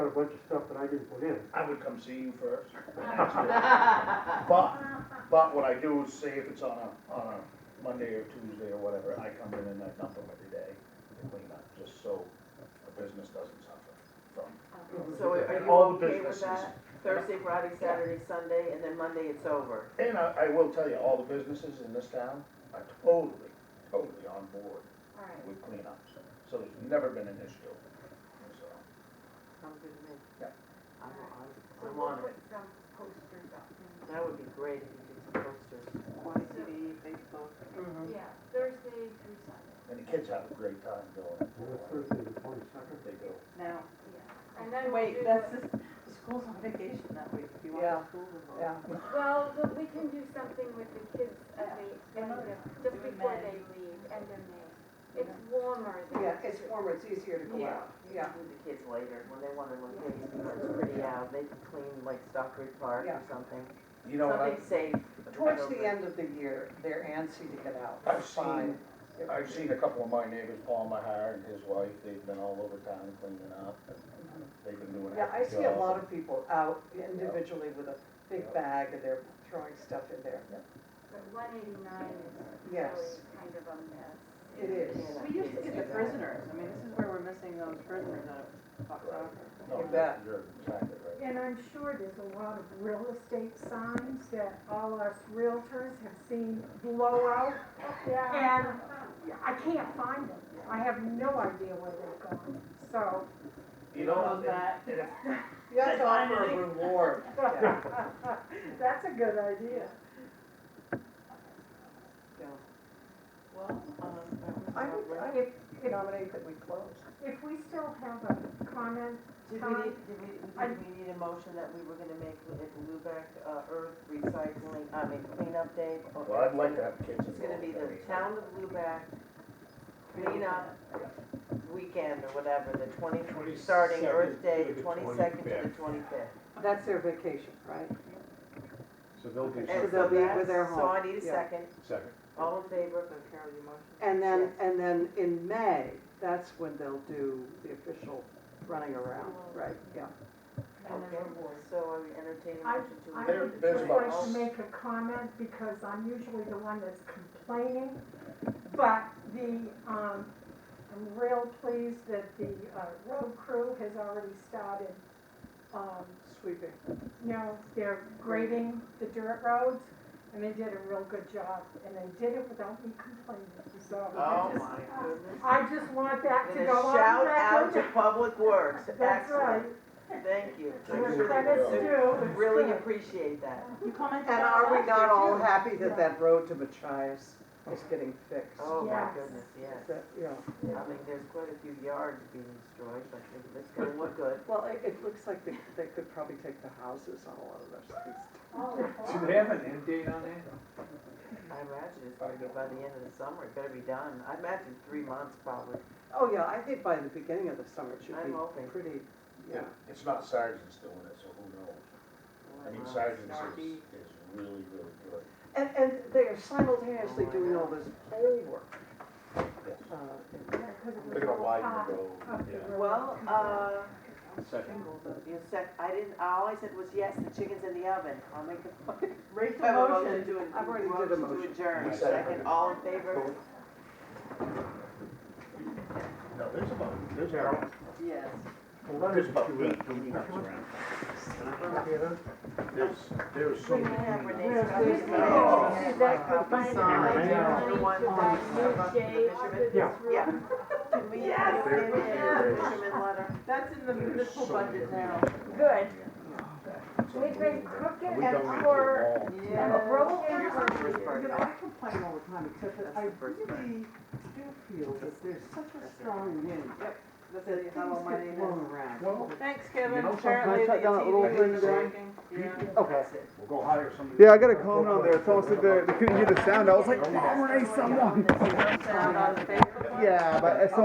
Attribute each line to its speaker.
Speaker 1: a bunch of stuff that I didn't put in.
Speaker 2: I would come see you first. But, but what I do is say if it's on a, on a Monday or Tuesday or whatever, I come in and I dump them every day to clean up, just so the business doesn't suffer from.
Speaker 3: So are you
Speaker 2: All the
Speaker 3: okay with
Speaker 2: businesses.
Speaker 3: that? Thursday, Friday, Saturday, Sunday, and then Monday it's over.
Speaker 2: And I, I will tell you, all the businesses in this town are totally, totally on board
Speaker 4: Alright,
Speaker 2: with cleanups, so there's never been an issue. So,
Speaker 3: Sounds good to me.
Speaker 2: Yeah.
Speaker 3: I'm, I'm,
Speaker 4: so
Speaker 3: I'm
Speaker 4: we'll
Speaker 3: on
Speaker 4: put
Speaker 3: it.
Speaker 4: some posters up. in-
Speaker 3: That would be great if you did some posters.
Speaker 5: Quad City, Facebook.
Speaker 4: Yeah, Thursday through Sunday,
Speaker 2: and the kids have a great time doing
Speaker 1: And that's
Speaker 2: it.
Speaker 1: Thursday, the twenty-second.
Speaker 2: They do.
Speaker 5: Now,
Speaker 4: yeah. And then we'll
Speaker 5: wait,
Speaker 4: do
Speaker 5: that's
Speaker 4: the-
Speaker 5: just, school's on vacation that week, if you want
Speaker 3: Yeah.
Speaker 5: the school involved.
Speaker 3: Yeah.
Speaker 4: Well, but we can do something with the kids as they,
Speaker 5: Yeah.
Speaker 4: end of- just
Speaker 5: Do it
Speaker 4: before
Speaker 5: May.
Speaker 4: they leave, end of May. It's warmer than.
Speaker 6: Yeah, it's warmer, it's easier to go out, yeah.
Speaker 3: Do the kids later, when they wanna, when things are pretty out, they can clean like Stockbridge Park
Speaker 6: Yeah.
Speaker 3: or something.
Speaker 2: You know, what? I-
Speaker 3: Something safe.
Speaker 6: Towards the end of the year, they're antsy to get out.
Speaker 2: I've
Speaker 6: It's fine.
Speaker 2: seen, I've seen a couple of my neighbors, Paul Mahar and his wife, they've been all over town cleaning up, and they've been doing.
Speaker 6: Yeah, I see a lot
Speaker 2: job.
Speaker 6: of people out individually with a big bag and they're throwing stuff in there.
Speaker 4: But one eighty-nine is really
Speaker 6: Yes.
Speaker 4: kind of a mess.
Speaker 6: It is.
Speaker 5: We used to get the prisoners, I mean, this is where we're missing those prisoners out of Fox Rocker.
Speaker 2: No,
Speaker 6: You bet.
Speaker 2: Oh, You're exactly right.
Speaker 7: And I'm sure there's a lot of real estate signs that all us realtors have seen blow out, and I can't find them. I have no idea where they're going, so.
Speaker 2: You know,
Speaker 5: Love that.
Speaker 2: and if,
Speaker 6: You have to offer a reward. yeah.
Speaker 7: That's a good idea.
Speaker 3: Well, um, that was
Speaker 6: I
Speaker 3: lovely.
Speaker 6: would, I would nominate that we close.
Speaker 7: If we still have a comment,
Speaker 3: Did we need, did we, did we need a motion that we were gonna make with it Lubec, uh, earth recycling, I mean cleanup day? or-
Speaker 2: well, I'd like to have kids.
Speaker 3: It's gonna be the
Speaker 2: involved.
Speaker 3: town of Lubec cleanup weekend or whatever, the twenty, starting Earth Day, the twenty-second to the twenty-fifth.
Speaker 6: That's their vacation, right?
Speaker 8: So they'll do
Speaker 6: So
Speaker 3: And
Speaker 8: something,
Speaker 6: they'll
Speaker 3: so
Speaker 6: be with
Speaker 3: that's,
Speaker 6: their
Speaker 3: so
Speaker 6: home,
Speaker 3: I need a
Speaker 6: yeah.
Speaker 3: second,
Speaker 8: second.
Speaker 3: all in favor?
Speaker 5: So Carol, you motion?
Speaker 6: And then,
Speaker 3: Yes.
Speaker 6: and then in May, that's when they'll do the official running around, right, yeah.
Speaker 3: And then, so I would entertain a
Speaker 7: I-
Speaker 3: motion to.
Speaker 7: I
Speaker 2: There-
Speaker 7: would
Speaker 2: there's
Speaker 7: just
Speaker 2: about
Speaker 7: like to
Speaker 2: us.
Speaker 7: make a comment, because I'm usually the one that's complaining, but the, um, I'm real pleased that the, uh, road crew has already started, um,
Speaker 6: Sweeping.
Speaker 7: you know, they're grading the dirt roads, and they did a real good job, and they did it without me complaining, so. I
Speaker 3: Oh,
Speaker 7: just-
Speaker 3: my goodness.
Speaker 7: I just want that to
Speaker 3: And a
Speaker 7: go on
Speaker 3: shout out to
Speaker 7: record.
Speaker 3: Public Works,
Speaker 7: That's right,
Speaker 3: excellent, thank you.
Speaker 2: Thank
Speaker 7: where
Speaker 2: you.
Speaker 7: credit's due. it's
Speaker 3: Really
Speaker 7: good.
Speaker 3: appreciate that.
Speaker 5: You commented
Speaker 6: And
Speaker 5: on
Speaker 6: are we
Speaker 5: last year,
Speaker 6: not all
Speaker 5: too.
Speaker 6: happy that that road to Machias is getting fixed?
Speaker 3: Oh, my
Speaker 7: Yes.
Speaker 3: goodness, yes.
Speaker 6: That, you know,
Speaker 3: I mean, there's quite a few yards being destroyed, but it- it's gonna look good.
Speaker 6: well, it, it looks like they, they could probably take the houses on a lot of those things.
Speaker 7: Oh,
Speaker 8: Do they have an end date on that?
Speaker 3: I imagine it's gonna be by the end of the summer, it better be done. I imagine three months probably.
Speaker 6: Oh, yeah, I think by the beginning of the summer it should
Speaker 3: I'm
Speaker 6: be
Speaker 3: hoping.
Speaker 6: pretty, yeah.
Speaker 2: It's not sergeants doing it, so who knows? I mean, sergeants is,
Speaker 5: Snarky.
Speaker 2: is really, really good.
Speaker 6: And, and they are simultaneously
Speaker 3: Oh, I
Speaker 6: doing
Speaker 3: know.
Speaker 6: all this pole work.
Speaker 2: Yes.
Speaker 6: Uh,
Speaker 7: Yeah, 'cause it was
Speaker 2: They're gonna
Speaker 7: all
Speaker 2: widen
Speaker 7: hot.
Speaker 2: the road.
Speaker 7: up the
Speaker 8: Yeah.
Speaker 7: road.
Speaker 3: Well, uh,
Speaker 8: Second.
Speaker 3: you said, I didn't, all I said was, yes, the chicken's in the oven. I'll make the.
Speaker 5: Rachel
Speaker 3: Have a motion
Speaker 5: motion.
Speaker 3: to ad-
Speaker 6: I've already did a
Speaker 3: To
Speaker 6: motion.
Speaker 3: adjourn,
Speaker 2: We said it.
Speaker 3: second, all in favor?
Speaker 2: No, there's about, there's about,
Speaker 5: Yes.
Speaker 2: there's about eight cleanups around. There's, there's so
Speaker 3: Bring
Speaker 2: many
Speaker 3: it up,
Speaker 2: cleanups.
Speaker 3: Renee's got
Speaker 7: There's
Speaker 3: it.
Speaker 7: the-
Speaker 2: Oh.
Speaker 7: there's that good
Speaker 3: Copies
Speaker 7: button.
Speaker 3: on it.
Speaker 1: Yeah.
Speaker 3: The one
Speaker 7: Yeah.
Speaker 3: about the fisherman.
Speaker 1: Yeah.
Speaker 3: Yeah. Can we
Speaker 7: Yes.
Speaker 3: get in the fisherman letter?
Speaker 5: That's in the municipal budget now.
Speaker 7: Good.
Speaker 2: We've
Speaker 7: been crooked
Speaker 2: We
Speaker 7: and
Speaker 2: don't need to
Speaker 7: poor.
Speaker 2: go long.
Speaker 5: Yeah.
Speaker 7: Roll
Speaker 3: Here's the first
Speaker 6: You know,
Speaker 3: part.
Speaker 6: I complain all the time, except that I really do feel that there's such a strong wind, that
Speaker 5: That's how
Speaker 6: things
Speaker 5: you have all money
Speaker 6: get
Speaker 5: in
Speaker 6: blown
Speaker 5: it.
Speaker 6: around.
Speaker 2: Well,
Speaker 5: Thanks,
Speaker 2: You
Speaker 5: Kevin,
Speaker 2: know, sometimes
Speaker 5: apparently the
Speaker 8: shut down that little
Speaker 5: TV
Speaker 8: thing
Speaker 5: wasn't
Speaker 8: there.
Speaker 5: working. Yeah.
Speaker 8: Okay.
Speaker 2: We'll go hire somebody.
Speaker 8: Yeah, I got a comment on there, someone said they they couldn't hear the sound, I was like, oh, someone.
Speaker 5: Sound on Facebook.
Speaker 8: Yeah, but I saw